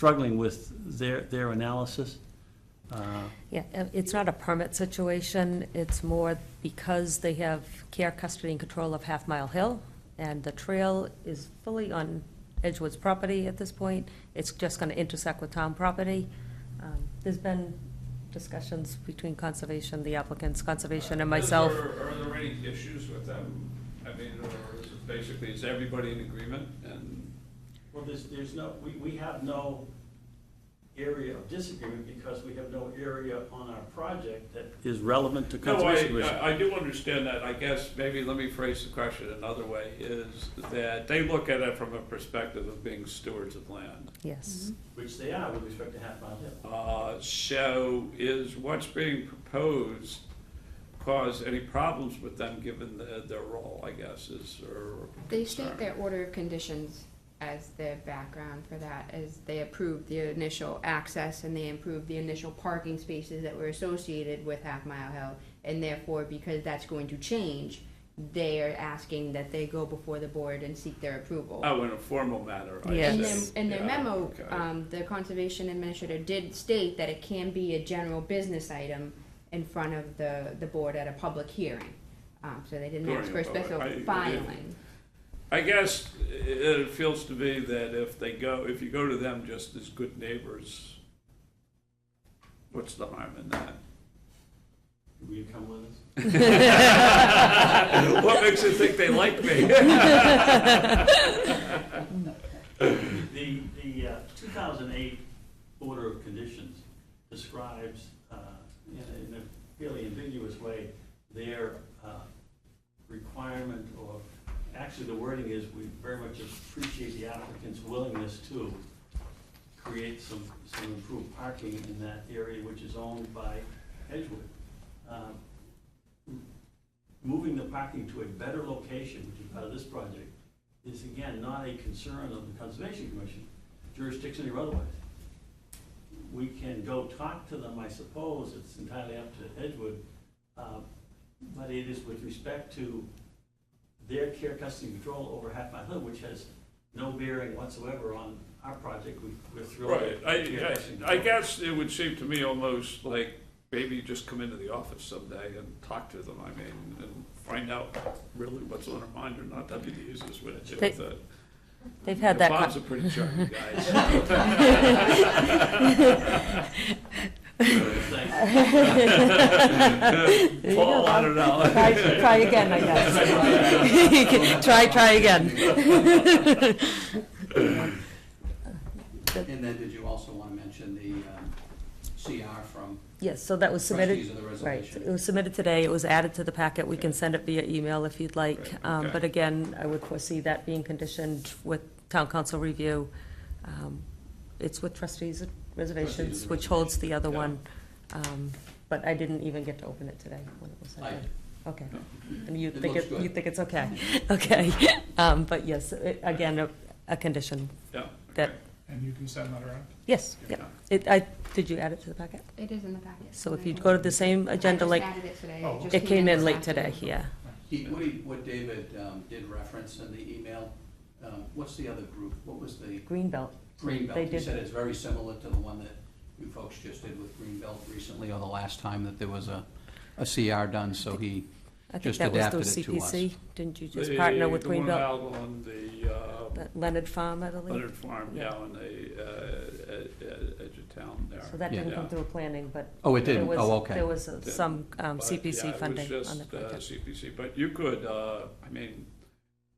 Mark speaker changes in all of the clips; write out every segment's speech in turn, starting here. Speaker 1: struggling with their, their analysis. Uh,
Speaker 2: Yeah, uh, it's not a permit situation, it's more because they have care, custody, and control of Half Mile Hill, and the trail is fully on Edgewood's property at this point, it's just gonna intersect with town property. Um, There's been discussions between conservation, the applicants, conservation, and myself.
Speaker 3: Is there- Are there any issues with them? I mean, or is it basically, is everybody in agreement and?
Speaker 1: Well, there's, there's no, we, we have no area of disagreement because we have no area on our project that is relevant to
Speaker 3: No, I-
Speaker 1: Conservation Commission.
Speaker 3: I, I do understand that. I guess maybe let me phrase the question another way, is that they look at it from a perspective of being stewards of land.
Speaker 2: Yes,
Speaker 1: Which they are with respect to Half Mile Hill.
Speaker 3: Uh, So is what's being proposed cause any problems with them, given the- their role, I guess, is, or?
Speaker 4: They
Speaker 3: concern?
Speaker 4: state their order of conditions as their background for that, as they approved the initial access and they approved the initial parking spaces that were associated with Half Mile Hill. And therefore, because that's going to change, they are asking that they go before the board and seek their approval.
Speaker 3: Oh, in a formal matter, I see.
Speaker 2: Yes.
Speaker 4: In their, in their
Speaker 3: Yeah,
Speaker 4: memo,
Speaker 3: okay.
Speaker 4: um, the conservation administrator did state that it can be a general business item in front of the, the board at a public hearing. Um, so they didn't ask for a
Speaker 3: During a public-
Speaker 4: special
Speaker 3: I- yeah.
Speaker 4: filing.
Speaker 3: I guess it feels to me that if they go, if you go to them just as good neighbors, what's the harm in
Speaker 1: Will you come with us?
Speaker 3: that? What makes you think they like me?
Speaker 1: The, the uh, 2008 Order of Conditions describes, uh, in a- in a fairly ambiguous way, their uh, requirement or, actually, the wording is, we very much appreciate the applicant's willingness to create some, some improved parking in that area which is owned by Edgewood. Uh, Moving the parking to a better location, which is part of this project, is again not a concern of the Conservation Commission, jurisdiction or otherwise. We can go talk to them, I suppose, it's entirely up to Edgewood, uh, but it is with respect to their care, custody, and control over Half Mile Hill, which has no bearing whatsoever on our project, We- we're thrilled.
Speaker 3: Right,
Speaker 1: with care,
Speaker 3: I,
Speaker 1: custody, and
Speaker 3: I, I
Speaker 1: control.
Speaker 3: guess it would seem to me almost like maybe you just come into the office someday and talk to them, I mean, and find out really what's on their mind or not, that'd be the easiest way to do
Speaker 2: They-
Speaker 3: it.
Speaker 2: they've had that. con-
Speaker 3: Bob's a pretty charming guy, so.
Speaker 1: Thank
Speaker 3: Paul, I don't
Speaker 2: Try,
Speaker 3: know.
Speaker 2: try again, I guess. Try, try again.
Speaker 5: And then did you also want to mention the um, CR from
Speaker 2: Yes, so that was submitted.
Speaker 5: trustees of the
Speaker 2: Right,
Speaker 5: reservation?
Speaker 2: it was submitted today, it was added to the packet, we can send it via email if you'd like.
Speaker 3: Right,
Speaker 2: Um,
Speaker 3: okay.
Speaker 2: But again, I would foresee that being conditioned with town council review. Um, It's with trustees of reservations,
Speaker 5: Trustees of
Speaker 2: which holds
Speaker 5: reservation,
Speaker 2: the other
Speaker 3: yeah.
Speaker 2: one. Um, But I didn't even get to open it today when it was sent
Speaker 5: I-
Speaker 2: in. Okay, and you
Speaker 5: It
Speaker 2: think
Speaker 5: looks
Speaker 2: it,
Speaker 5: good.
Speaker 2: you think it's okay, okay. Um, But yes, it- again, a, a condition,
Speaker 3: Yeah,
Speaker 2: That-
Speaker 3: okay.
Speaker 6: And you can send that around?
Speaker 2: yes, yeah. It, I, did you add it to the packet?
Speaker 4: It is in the packet.
Speaker 2: So if you go to the same agenda, like,
Speaker 4: I just added it today.
Speaker 6: Oh,
Speaker 4: just
Speaker 2: it came in
Speaker 4: this
Speaker 2: late today,
Speaker 4: afternoon.
Speaker 2: yeah.
Speaker 5: He, what he, what David um, did reference in the email, um, what's the other group? What was the
Speaker 2: Greenbelt, They
Speaker 5: Greenbelt? He
Speaker 2: did-
Speaker 5: said it's very similar to the one that you folks just did with Greenbelt recently, or the last time that there was a, a CR done, so he,
Speaker 2: I think
Speaker 5: Just
Speaker 2: that was through
Speaker 5: adapted it to us.
Speaker 2: CPC, didn't you just partner with
Speaker 3: The- The one
Speaker 2: Greenbelt?
Speaker 3: out on the uh,
Speaker 2: That Leonard Farm, I believe?
Speaker 3: Leonard Farm, yeah, on the uh, ed- ed- edge of town there.
Speaker 2: So that didn't come
Speaker 3: Yeah.
Speaker 2: through planning, but.
Speaker 5: oh, it
Speaker 2: there
Speaker 5: didn't,
Speaker 2: was-
Speaker 5: oh, okay.
Speaker 2: There was uh, some um,
Speaker 3: But,
Speaker 2: CPC funding
Speaker 3: Yeah, it was
Speaker 2: on the
Speaker 3: just uh,
Speaker 2: project.
Speaker 3: CPC, but you could, uh, I mean,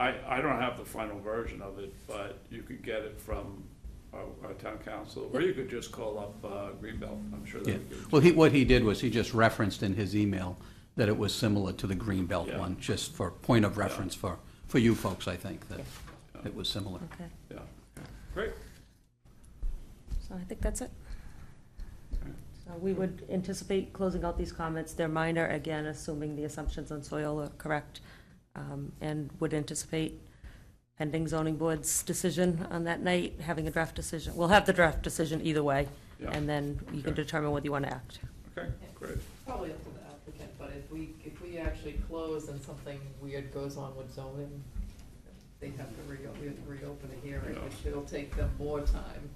Speaker 3: I, I don't have the final version of it, but you could get it from our our town council, or you could just call up uh, Greenbelt, I'm sure they
Speaker 5: Yeah.
Speaker 3: would give it to
Speaker 5: Well, he, what he did was he just referenced in his email that it was similar to the Greenbelt
Speaker 3: Yeah.
Speaker 5: one, just for point of reference for, for you folks, I think, that
Speaker 3: Yeah.
Speaker 5: it was similar.
Speaker 2: Okay,
Speaker 3: you. Yeah. Great,
Speaker 2: so I think that's it.
Speaker 3: Okay.
Speaker 2: So we would anticipate closing out these comments. They're minor, again, assuming the assumptions on soil are correct. um, And would anticipate pending zoning board's decision on that night, having a draft decision. We'll have the draft decision either way,
Speaker 3: yeah,
Speaker 2: and then you can
Speaker 3: Okay.
Speaker 2: determine whether you want to act.
Speaker 3: okay, great.
Speaker 7: Probably up to the applicant, but if we, if we actually close and something weird goes on with zoning, they have to re, we have to reopen a hearing,
Speaker 3: Yeah.
Speaker 7: which it'll take them more time.